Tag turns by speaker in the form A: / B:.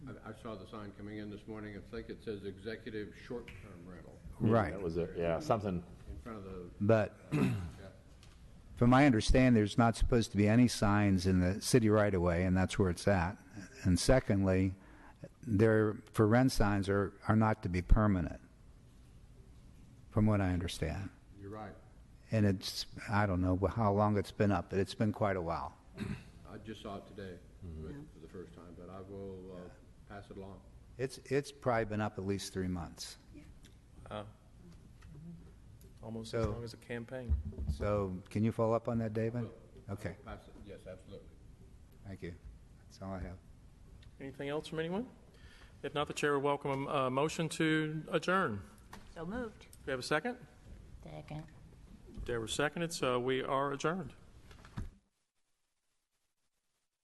A: I saw the sign coming in this morning, I think it says executive short-term rental
B: Right,
C: That was it, yeah, something,
A: in front of the,
B: but from my understanding, there's not supposed to be any signs in the city right of way, and that's where it's at. And secondly, there, for rent signs are, are not to be permanent, from what I understand.
A: you're right.
B: And it's, I don't know how long it's been up, but it's been quite a while.
A: I just saw it today for the first time, but I will uh, pass it along.
B: It's, it's probably been up at least three months.
D: Almost
B: as
D: as
B: So-
D: long
B: long
D: as a campaign.
B: So can you follow up on that, David? Okay,
A: Pass it, yes, absolutely.
B: thank you. That's all I have.
D: Anything else from anyone? If not, the chair would welcome a a motion to adjourn.
E: So moved.
D: Do we have a second?
E: Second.
D: There was seconded, so we are adjourned.